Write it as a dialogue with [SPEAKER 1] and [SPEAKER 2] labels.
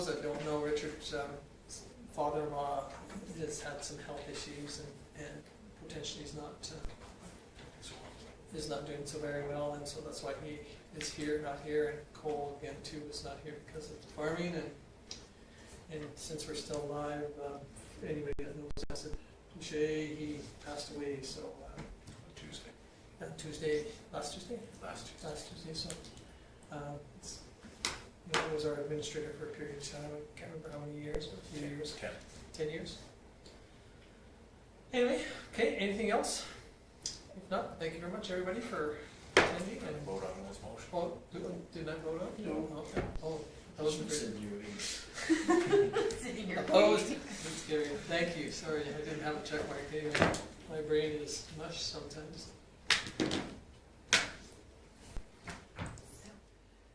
[SPEAKER 1] that don't know, Richard's um, s- father-in-law has had some health issues and, and potentially is not, uh, is not doing so very well, and so that's why he is here, not here, and Cole again too is not here because of farming, and, and since we're still alive, um, anybody that knows us, Jay, he passed away, so, uh,
[SPEAKER 2] Tuesday,
[SPEAKER 1] uh, Tuesday, last Tuesday?
[SPEAKER 2] last Tuesday.
[SPEAKER 1] last Tuesday, so, um, it's, you know, it was our administrator for a period of time, I can't remember how many years, but a few years,
[SPEAKER 2] Ten.
[SPEAKER 1] ten years. Anyway, okay, anything else? If not, thank you very much, everybody, for attending and,
[SPEAKER 2] Vote on those motions.
[SPEAKER 1] oh, did- did I vote up?
[SPEAKER 3] No.
[SPEAKER 1] Okay, oh, that was great.
[SPEAKER 3] Sitting here
[SPEAKER 1] Opposed, that's scary, thank you, sorry, I didn't have a check mark, Anyway, my brain is mush sometimes.